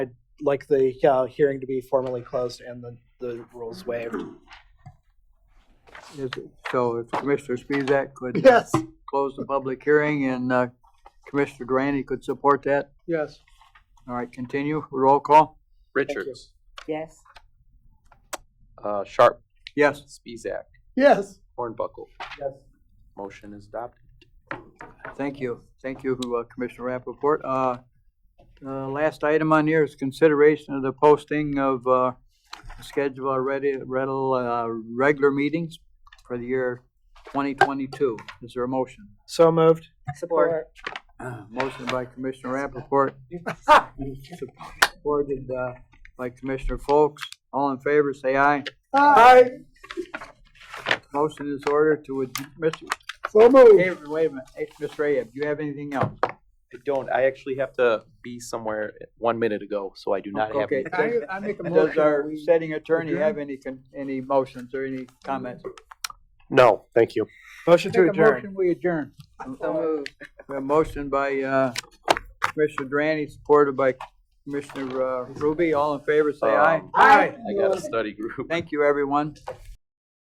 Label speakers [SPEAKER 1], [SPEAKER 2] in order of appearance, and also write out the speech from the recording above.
[SPEAKER 1] like the uh, hearing to be formally closed and the, the rules waived.
[SPEAKER 2] Is it- So if Commissioner Spezak could uh,
[SPEAKER 1] Yes,
[SPEAKER 2] close the public hearing and uh, Commissioner Grani could support that.
[SPEAKER 1] yes.
[SPEAKER 2] All right, continue, roll call.
[SPEAKER 3] Richards,
[SPEAKER 4] Yes.
[SPEAKER 3] uh, Sharp,
[SPEAKER 2] Yes,
[SPEAKER 3] Spezak,
[SPEAKER 1] Yes.
[SPEAKER 3] Hornbuckle.
[SPEAKER 1] Yes.
[SPEAKER 3] Motion is adopted.
[SPEAKER 2] thank you. Thank you, uh, Commissioner Rappaport. Uh, uh, Last item on here is consideration of the posting of uh, schedule already, rental, uh, regular meetings for the year 2022. Is there a motion?
[SPEAKER 1] So moved.
[SPEAKER 4] Support.
[SPEAKER 2] Motion by Commissioner Rappaport. Supported uh, by Commissioner Folks. All in favor, say aye.
[SPEAKER 1] Aye.
[SPEAKER 2] Motion is ordered to, ad- Mr.
[SPEAKER 1] So moved.
[SPEAKER 2] Hey, Wait a minute, Hey, Mr. Ayeb, do you have anything else?
[SPEAKER 3] I don't, I actually have to be somewhere one minute ago, so I do not have.
[SPEAKER 2] Okay,
[SPEAKER 1] I,
[SPEAKER 2] does-
[SPEAKER 1] I make a
[SPEAKER 2] does our
[SPEAKER 1] motion.
[SPEAKER 2] setting attorney have any, con- any motions or any comments?
[SPEAKER 3] No, thank you.
[SPEAKER 1] Motion to
[SPEAKER 2] Make a
[SPEAKER 1] adjourn.
[SPEAKER 2] motion, we adjourn.
[SPEAKER 4] So moved.
[SPEAKER 2] A motion by uh, Commissioner Drani, supported by Commissioner uh, Ruby. All in favor, say aye.
[SPEAKER 3] Um,
[SPEAKER 1] Aye.
[SPEAKER 3] I got a study group.
[SPEAKER 2] Thank you, everyone.